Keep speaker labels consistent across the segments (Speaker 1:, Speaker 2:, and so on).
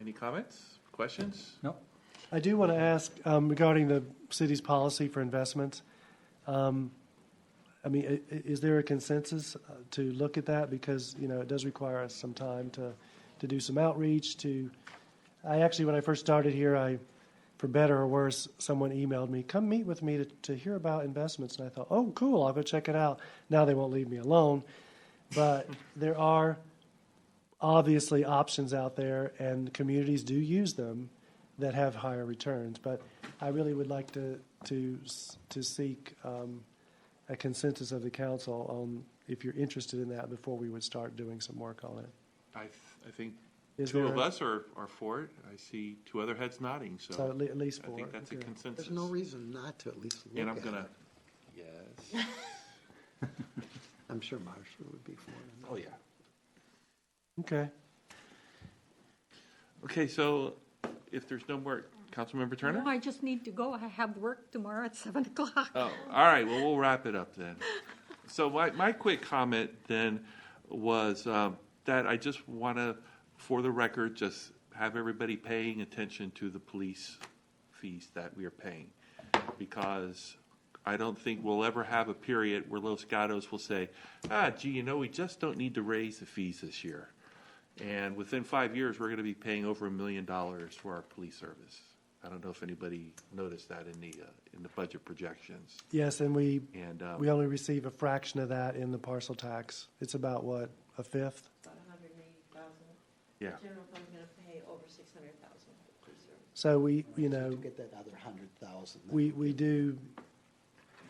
Speaker 1: Any comments, questions?
Speaker 2: No?
Speaker 3: I do want to ask um, regarding the city's policy for investments. Um, I mean, i- i- is there a consensus uh, to look at that? Because, you know, it does require us some time to, to do some outreach, to, I actually, when I first started here, I, for better or worse, someone emailed me, come meet with me to, to hear about investments. And I thought, oh, cool, I'll go check it out. Now they won't leave me alone. But there are obviously options out there, and communities do use them that have higher returns. But I really would like to to s- to seek um, a consensus of the council on if you're interested in that before we would start doing some work on it.
Speaker 1: I, th- I think
Speaker 3: Is
Speaker 1: two
Speaker 3: there
Speaker 1: of us are, are for it. I see two other heads nodding,
Speaker 3: so at
Speaker 1: so
Speaker 3: le- at least
Speaker 1: I
Speaker 3: for
Speaker 1: think that's a consensus.
Speaker 4: There's no reason not to at least look
Speaker 1: And
Speaker 4: at
Speaker 1: I'm gonna,
Speaker 4: it.
Speaker 1: yes.
Speaker 4: I'm sure Marcia would be for it.
Speaker 2: Oh, yeah.
Speaker 3: okay.
Speaker 1: Okay, so if there's no more, Councilmember Turner?
Speaker 5: No, I just need to go. I have work tomorrow at seven o'clock.
Speaker 1: Oh, all right. Well, we'll wrap it up then. So my, my quick comment then was um, that I just want to, for the record, just have everybody paying attention to the police fees that we are paying, because I don't think we'll ever have a period where Los Gatos will say, ah, gee, you know, we just don't need to raise the fees this year. And within five years, we're going to be paying over a million dollars for our police service. I don't know if anybody noticed that in the, uh, in the budget projections.
Speaker 3: Yes, and we
Speaker 1: And, um,
Speaker 3: we only receive a fraction of that in the parcel tax. It's about what a fifth.
Speaker 6: About a hundred and eighty thousand.
Speaker 1: yeah,
Speaker 6: General fund's gonna pay over six hundred thousand for service.
Speaker 3: So we you
Speaker 4: So
Speaker 3: know
Speaker 4: To get that other hundred thousand.
Speaker 3: we we do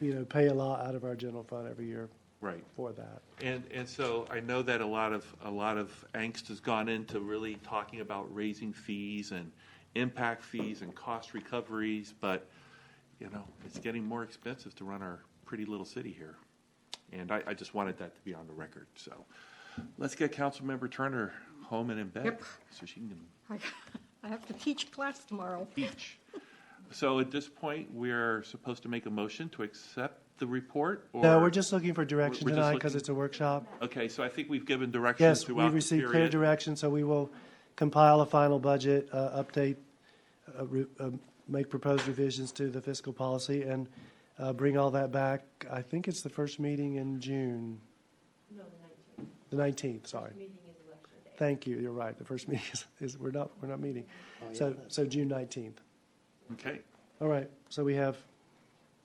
Speaker 3: you know pay a lot out of our general fund every year
Speaker 1: right.
Speaker 3: for that.
Speaker 1: And, and so I know that a lot of, a lot of angst has gone into really talking about raising fees and impact fees and cost recoveries, but, you know, it's getting more expensive to run our pretty little city here. And I, I just wanted that to be on the record, so. Let's get Councilmember Turner home and in bed,
Speaker 5: Yep.
Speaker 1: so she can
Speaker 5: I I have to teach class tomorrow.
Speaker 1: teach. So at this point, we're supposed to make a motion to accept the report? or-
Speaker 3: No, we're just looking for direction
Speaker 1: we're just
Speaker 3: tonight because
Speaker 1: looking-
Speaker 3: it's a workshop.
Speaker 1: Okay, so I think we've given direction
Speaker 3: Yes, we
Speaker 1: throughout the
Speaker 3: received clear
Speaker 1: period.
Speaker 3: direction, so we will compile a final budget, uh, update, uh, re- uh, make proposed revisions to the fiscal policy, and uh, bring all that back. I think it's the first meeting in June,
Speaker 6: No, the nineteenth,
Speaker 3: the 19th, sorry.
Speaker 6: meeting is election day.
Speaker 3: Thank you, you're right, the first meeting is, is, we're not, we're not meeting.
Speaker 4: yeah,
Speaker 3: So,
Speaker 4: that's-
Speaker 3: so June 19th.
Speaker 1: Okay,
Speaker 3: All right, so we have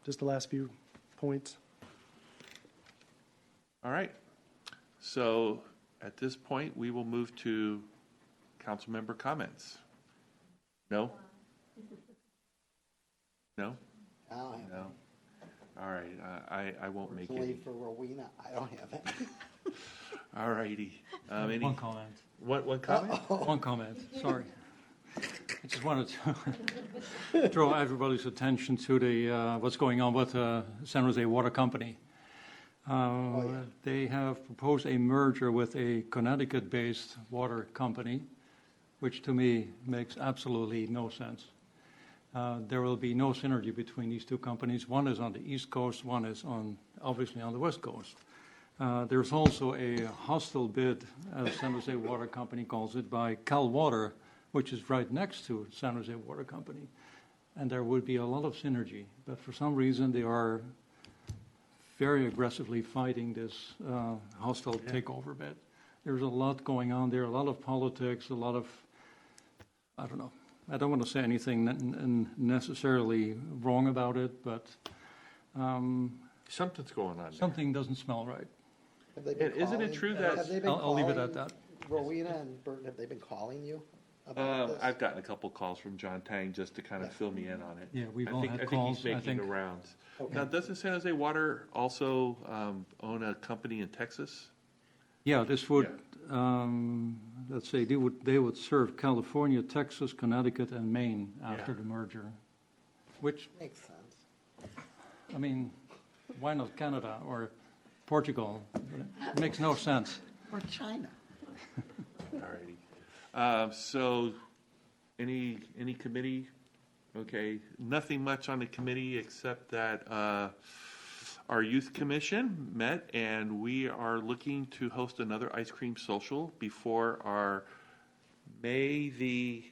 Speaker 3: just the last few points.
Speaker 1: all right. So at this point, we will move to council member comments. No? No?
Speaker 4: I don't have
Speaker 1: No? All right, uh, I, I won't
Speaker 4: any.
Speaker 1: make
Speaker 4: It's only
Speaker 1: any.
Speaker 4: for Rowena, I don't have any.
Speaker 1: All righty. Um, any,
Speaker 2: One comment.
Speaker 1: one, one comment?
Speaker 2: One comment, sorry. I just wanted to draw everybody's attention to the, uh, what's going on with uh, San Jose Water Company. Uh,
Speaker 4: yeah.
Speaker 2: They have proposed a merger with a Connecticut-based water company, which to me makes absolutely no sense. Uh, There will be no synergy between these two companies. One is on the East Coast, one is on, obviously, on the West Coast. Uh, There's also a hostile bid, as San Jose Water Company calls it, by Cal Water, which is right next to San Jose Water Company. And there would be a lot of synergy, but for some reason, they are very aggressively fighting this uh, hostile takeover bid. There's a lot going on there, a lot of politics, a lot of, I don't know. I don't want to say anything n- n- necessarily wrong about it, but um,
Speaker 1: Something's going on there.
Speaker 2: something doesn't smell right.
Speaker 4: Have they been
Speaker 1: And isn't it
Speaker 4: calling-
Speaker 1: true that-
Speaker 4: have they been
Speaker 2: I'll, I'll leave it at
Speaker 4: calling-
Speaker 2: that.
Speaker 4: Rowena and Burton, have they been calling you about
Speaker 1: Um,
Speaker 4: this?
Speaker 1: I've gotten a couple calls from John Tang just to kind of fill me in on it.
Speaker 2: Yeah, we've
Speaker 1: I
Speaker 2: all
Speaker 1: think-
Speaker 2: had
Speaker 1: I
Speaker 2: calls, I
Speaker 1: think he's making
Speaker 2: think.
Speaker 1: the rounds.
Speaker 4: Okay.
Speaker 1: Now, doesn't San Jose Water also um, own a company in Texas?
Speaker 2: Yeah, this would, um, let's say, they would, they would serve California, Texas, Connecticut, and Maine after
Speaker 1: Yeah.
Speaker 2: the merger, which,
Speaker 4: Makes sense.
Speaker 2: I mean, why not Canada or Portugal? It makes no sense.
Speaker 4: Or China.
Speaker 1: Alrighty. Um, So, any, any committee? Okay, nothing much on the committee except that uh, our youth commission met and we are looking to host another ice cream social before our May the